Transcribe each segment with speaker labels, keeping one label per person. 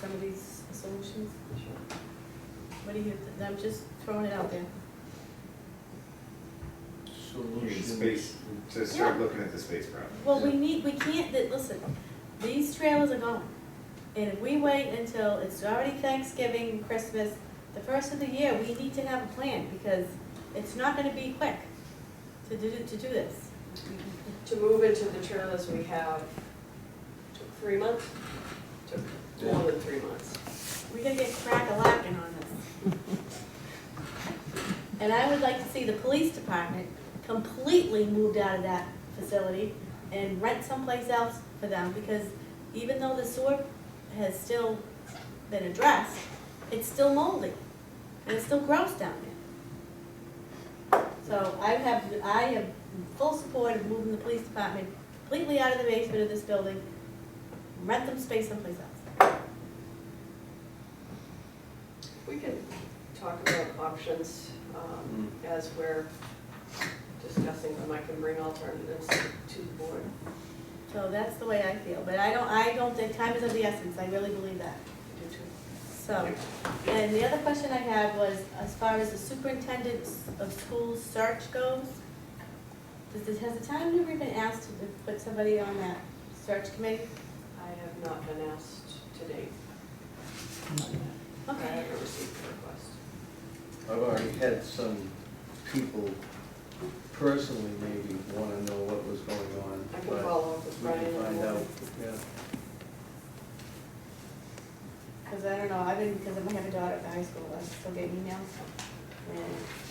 Speaker 1: some of these solutions? What do you, I'm just throwing it out there.
Speaker 2: You need
Speaker 3: Solutions.
Speaker 2: space, to start looking at the space problem.
Speaker 1: Well, we need, we can't, that- listen, these trailers are gone. And if we wait until it's already Thanksgiving, Christmas, the first of the year, we need to have a plan because it's not gonna be quick to do, to do this.
Speaker 4: To move into the trailers we have took three months, took more than three months.
Speaker 1: We're gonna get crack-a-lackin' on this. And I would like to see the police department completely moved out of that facility and rent someplace else for them, because even though the sewer has still been addressed, it's still moldy, and it's still gross down there. So I have, I am full support of moving the police department completely out of the basement of this building, rent them space someplace else.
Speaker 4: We can talk about options um,
Speaker 3: Mm.
Speaker 4: as we're discussing them. I can bring alternatives to the board.
Speaker 1: So that's the way I feel, but I don't, I don't think time is of the essence, I really believe that,
Speaker 4: Do too.
Speaker 1: so. And the other question I had was, as far as the superintendent of schools search goes, does this, has the town ever been asked to put somebody on that search committee?
Speaker 4: I have not been asked to date. I
Speaker 1: Okay,
Speaker 4: haven't received a request.
Speaker 3: I've already had some people personally maybe wanna know what was going on,
Speaker 4: I can
Speaker 3: but
Speaker 4: follow up with
Speaker 3: we
Speaker 4: Brian. in
Speaker 3: can
Speaker 4: the
Speaker 3: find out,
Speaker 4: morning.
Speaker 3: yeah.
Speaker 1: cause I don't know, I've been, because I have a daughter at the high school, I still get emails. And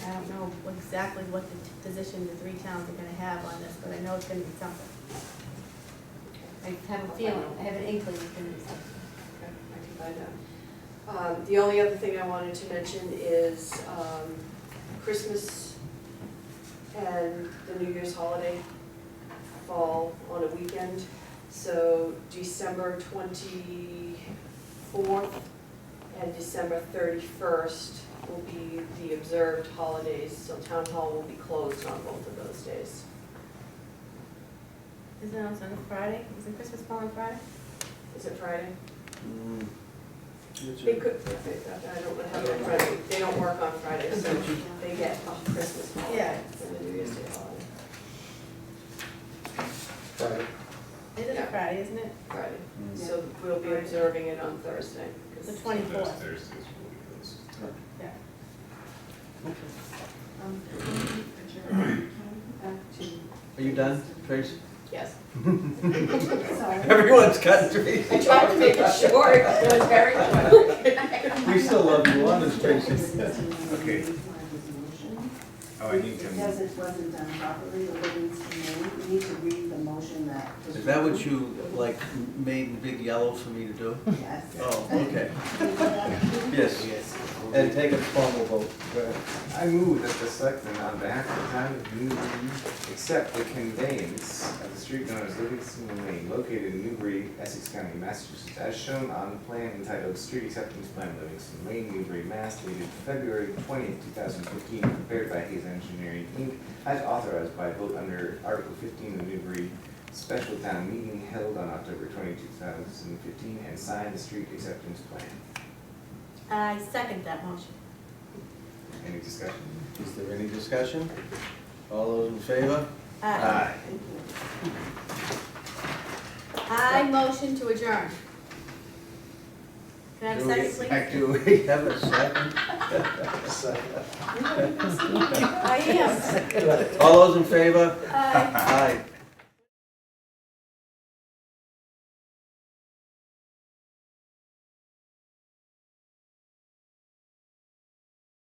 Speaker 1: I don't know exactly what the t- position the three towns are gonna have on this, but I know it's gonna be something. I have a feeling, I have an inkling it's gonna be something.
Speaker 4: Okay, I can find out. Um, The only other thing I wanted to mention is um, Christmas and the New Year's holiday fall on a weekend. So December twenty-fourth and December thirty-first will be the observed holidays. So town hall will be closed on both of those days.
Speaker 1: Isn't it on Friday? Isn't Christmas fall on Friday?
Speaker 4: Is it Friday?
Speaker 3: Mm. It's
Speaker 4: They
Speaker 3: a-
Speaker 4: could, I don't know how they're Friday, they don't work on Friday, so they get off Christmas
Speaker 1: Yeah.
Speaker 4: holiday and the New Year's Day holiday,
Speaker 1: It is a
Speaker 4: Yeah.
Speaker 1: Friday, isn't it?
Speaker 4: Friday.
Speaker 3: Mm.
Speaker 4: So we'll be observing it on Thursday. 'cause-
Speaker 1: The
Speaker 2: Those
Speaker 1: twenty-fourth.
Speaker 2: Thursdays will be closed.
Speaker 1: Yeah.
Speaker 3: Are you done, Tracy?
Speaker 4: Yes.
Speaker 3: Everyone's got Tracy.
Speaker 4: I tried to make it short, it was very short.
Speaker 3: We still love you, honest Tracy.
Speaker 2: Okay.
Speaker 5: Oh,
Speaker 2: Oh, I need
Speaker 5: Because
Speaker 2: to,
Speaker 5: it wasn't done properly, the ordinance made, we need to read the motion that. was
Speaker 3: Is that what
Speaker 5: written.
Speaker 3: you, like, made in big yellow for me to do?
Speaker 5: Yes.
Speaker 3: Oh, okay, yes.
Speaker 6: Yes.
Speaker 3: And take a formal vote. Go ahead.
Speaker 2: I move that the selectmen on behalf of the town of Newbury accept the conveyance of the street known as Livingston Lane located in Newbury, Essex County, Massachusetts, as shown on the plan entitled Street Acceptance Plan Livingston Lane, Newbury, Mass, dated February twentieth, two thousand fifteen, prepared by Hayes Engineering, Inc., as authorized by vote under Article fifteen of Newbury Special Town Meeting held on October 20, 2015, and signed the street acceptance plan.
Speaker 1: I second that motion.
Speaker 2: Any discussion?
Speaker 3: Is there any discussion? All those in favor?
Speaker 1: Aye. I motion to adjourn. Can I have
Speaker 3: Do
Speaker 1: a
Speaker 3: we-
Speaker 1: second, please?
Speaker 3: Do we have a second?
Speaker 1: I am.
Speaker 3: All those in favor?
Speaker 1: Aye.
Speaker 3: Aye.